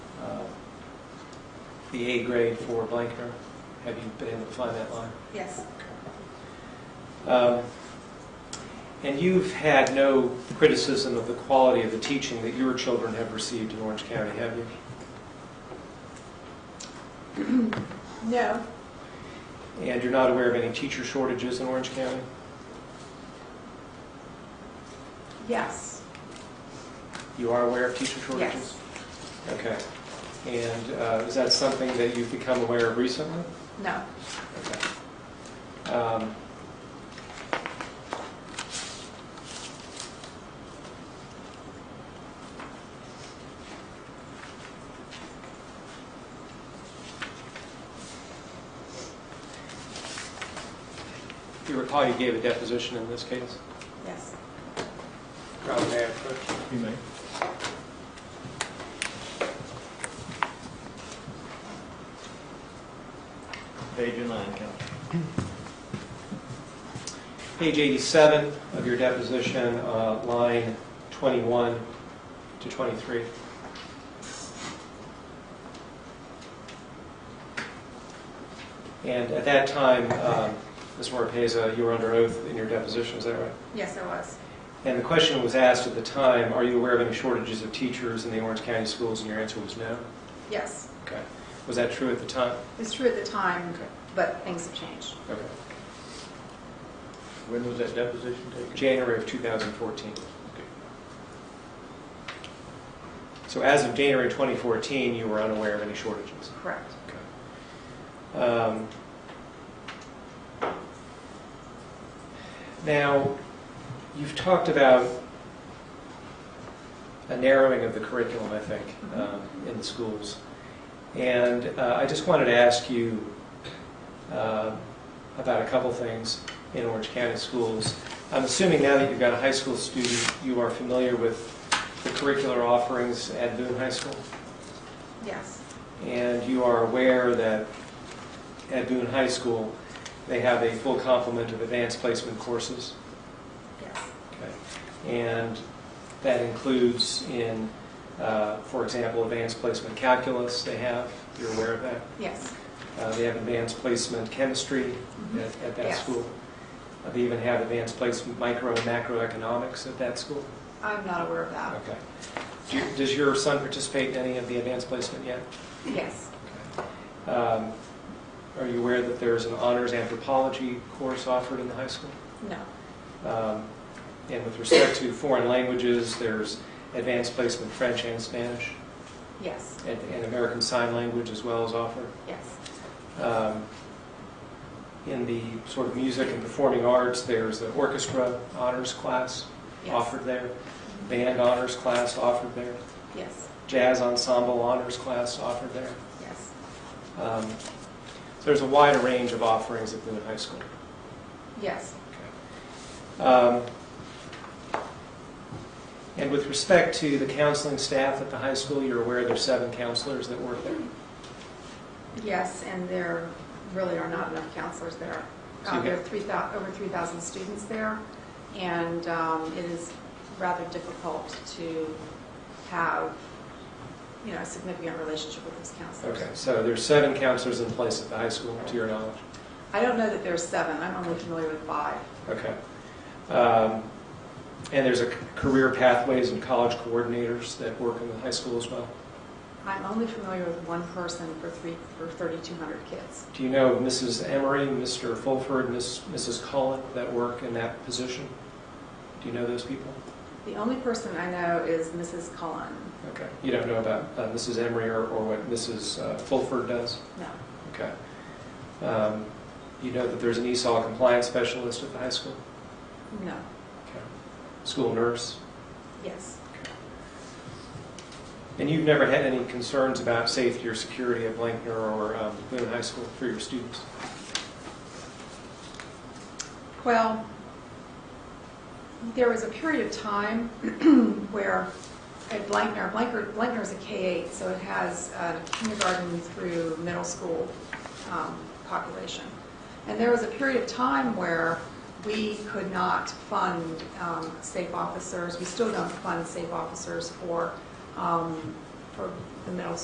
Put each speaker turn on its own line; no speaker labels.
Uh, the A grade for Blanker. Have you been able to find that line?
Yes,
Um, And you've had no criticism of the quality of the teaching that your children have received in Orange County, have you?
no,
And you're not aware of any teacher shortages in Orange County?
yes,
You are aware of teacher shortages?
yes,
Okay. And uh, is that something that you've become aware of recently?
no,
Okay. Um, You recall you gave a deposition in this case?
yes.
You may. Page nine, Counsel.
Page 87 of your deposition, uh, line 21 to 23. And at that time, um, Ms. Marpesa, you were under oath in your deposition, is that right?
Yes, I was.
And the question was asked at the time, are you aware of any shortages of teachers in the Orange County schools? And your answer was no.
Yes.
Okay. Was that true at the time?
It's true at the time,
Okay.
but things have changed.
Okay.
When was that deposition taken?
January of 2014. So as of January 2014, you were unaware of any shortages?
Correct.
Um, Now, you've talked about a narrowing of the curriculum, I think, um, in the schools. And uh, I just wanted to ask you uh, about a couple things in Orange County schools. I'm assuming now that you've got a high school student, you are familiar with the curricular offerings at Boone High School?
Yes,
And you are aware that at Boone High School, they have a full complement of advanced placement courses.
yes,
Okay. And that includes in, uh, for example, advanced placement calculus they have. You're aware of that.
yes,
Uh, They have advanced placement chemistry
Mhm.
at at that
Yes.
school. Uh, They even have advanced placement micro and macroeconomics at that school.
I'm not aware of that.
Okay. Do you- Does your son participate in any of the advanced placement yet?
Yes,
Um, Are you aware that there's an honors anthropology course offered in the high school?
no,
Um, And with respect to foreign languages, there's advanced placement French and Spanish,
yes,
and and American Sign Language as well is offered.
yes,
Um, In the sort of music and performing arts, there's the orchestra honors class
yes,
offered there, band honors class offered there,
yes,
jazz ensemble honors class offered there.
yes,
Um, So there's a wide range of offerings at Boone High School.
yes,
Um, And with respect to the counseling staff at the high school, you're aware there's seven counselors that work there?
yes, and there really are not enough counselors there.
So you
Uh, There are
get-
3,000, over 3,000 students there, and um, it is rather difficult to have, you know, a significant relationship with those counselors.
Okay, so there's seven counselors in place at the high school, to your knowledge?
I don't know that there are seven, I'm only familiar with five.
Okay. Um, And there's a c- career pathways and college coordinators that work in the high school as well?
I'm only familiar with one person for three, for 3,200 kids.
Do you know Mrs. Emery, Mr. Fulford, Miss- Mrs. Cullen that work in that position? Do you know those people?
The only person I know is Mrs. Cullen.
Okay. You don't know about uh, Mrs. Emery or or what Mrs. uh, Fulford does?
No,
Okay. Um, You know that there's an ESOL compliance specialist at the high school?
no,
Okay. School nurse?
yes,
And you've never had any concerns about safety or security at Blankner or um, Boone High School for your students?
Well, there was a period of time where at Blankner, Blankner, Blankner is a K-8, so it has uh, kindergarten through middle school um, population. And there was a period of time where we could not fund um, safe officers, we still don't fund safe officers for, um, for the middle